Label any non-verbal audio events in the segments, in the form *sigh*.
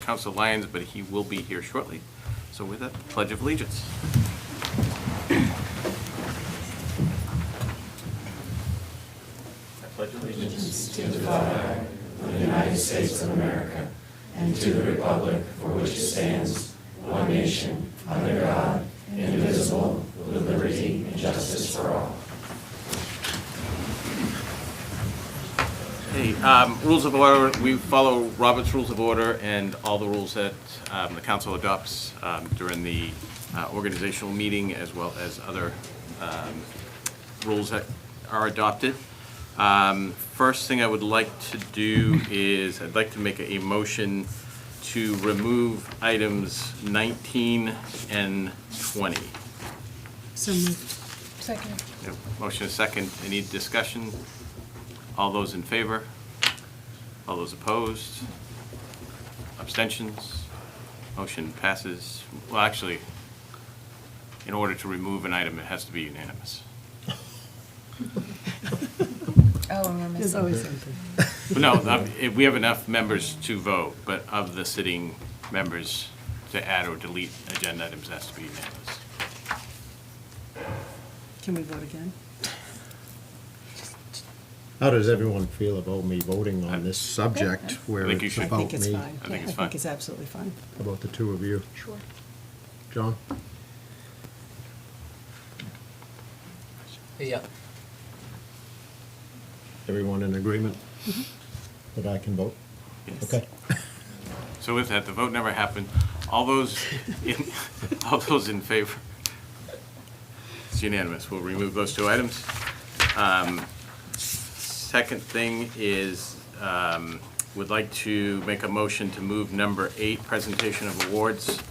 Council Lyons, but he will be here shortly. So with that, Pledge of Allegiance. Hey, um, rules of order, we follow Robert's Rules of Order and all the rules that um, the council adopts um, during the uh, organizational meeting as well as other um, rules that are adopted. Um, First thing I would like to do is, I'd like to make a motion to remove items 19 and 20. So moved. Second. Yep, Motion is second. Any discussion? All those in favor? All those opposed? Abstentions? Motion passes. Well, actually, in order to remove an item, it has to be unanimous. Oh, and we're There's missing. always something. But no, um, if we have enough members to vote, but of the sitting members to add or delete agenda items, it has to be unanimous. Can we vote again? How does everyone feel about me voting on this subject where I think you it's should. I about think it's me? fine. I think Yeah, it's I fine. think it's absolutely fine. About the two of you? Sure. John? Yeah. Everyone in agreement that I can vote? Yes. Okay. So with that, the vote never happened. All those, in *laughs* all those in favor? It's unanimous. We'll remove those two items. Um, Second thing is, um, would like to make a motion to move number eight, presentation of awards,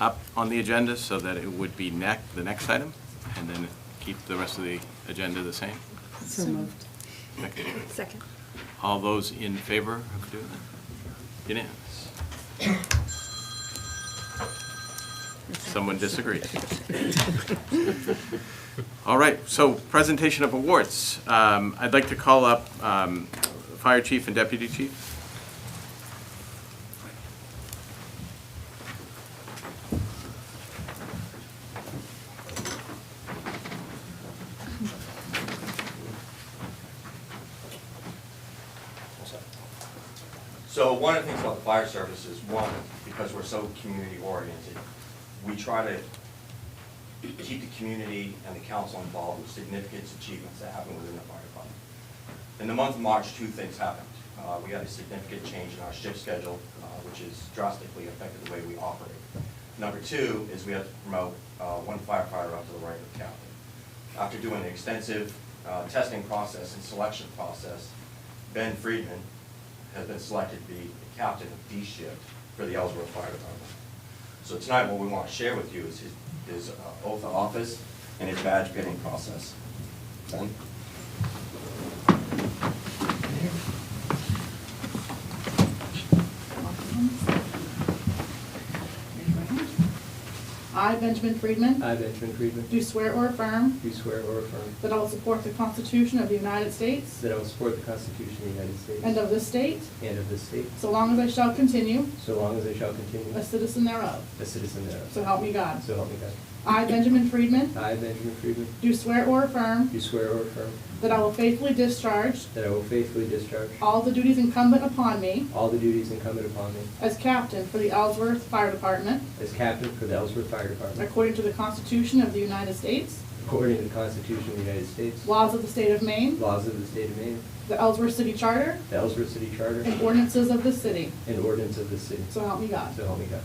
up on the agenda so that it would be neck, the next item, and then keep the rest of the agenda the same. So moved. Okay. Second. All those in favor of doing that? Unanimous. Someone disagrees. All right, so presentation of awards. Um, I'd like to call up um, Fire Chief and Deputy Chief. So one of the things about the fire service is, one, because we're so community oriented, we try to keep the community and the council involved with significant achievements that happen within the fire department. In the month of March, two things happened. Uh, We had a significant change in our shift schedule, uh, which has drastically affected the way we operate. Number two is we had to promote uh, one firefighter up to the rank of captain. After doing an extensive uh, testing process and selection process, Ben Friedman has been selected to be the captain of D shift for the Ellsworth Fire Department. So tonight, what we want to share with you is his, his uh, oath of office and his badge getting process. Ben? I, Benjamin Friedman, I, Benjamin Friedman, do swear or affirm do swear or affirm that I will support the Constitution of the United States that I will support the Constitution of the United and States of this state, and of this state, so long as I shall continue so long as I shall continue a citizen thereof. a citizen thereof. So help me God. So help me God. I, Benjamin Friedman, I, Benjamin Friedman, do swear or affirm do swear or affirm that I will faithfully discharge that I will faithfully discharge all the duties incumbent upon me all the duties incumbent upon me as captain for the Ellsworth Fire Department as captain for the Ellsworth Fire Department according to the Constitution of the United States, according to the Constitution of the United States, laws of the state of Maine, laws of the state of Maine, the Ellsworth City Charter, the Ellsworth City Charter, and ordinances of this city. and ordinance of the city. So help me God. So help me God.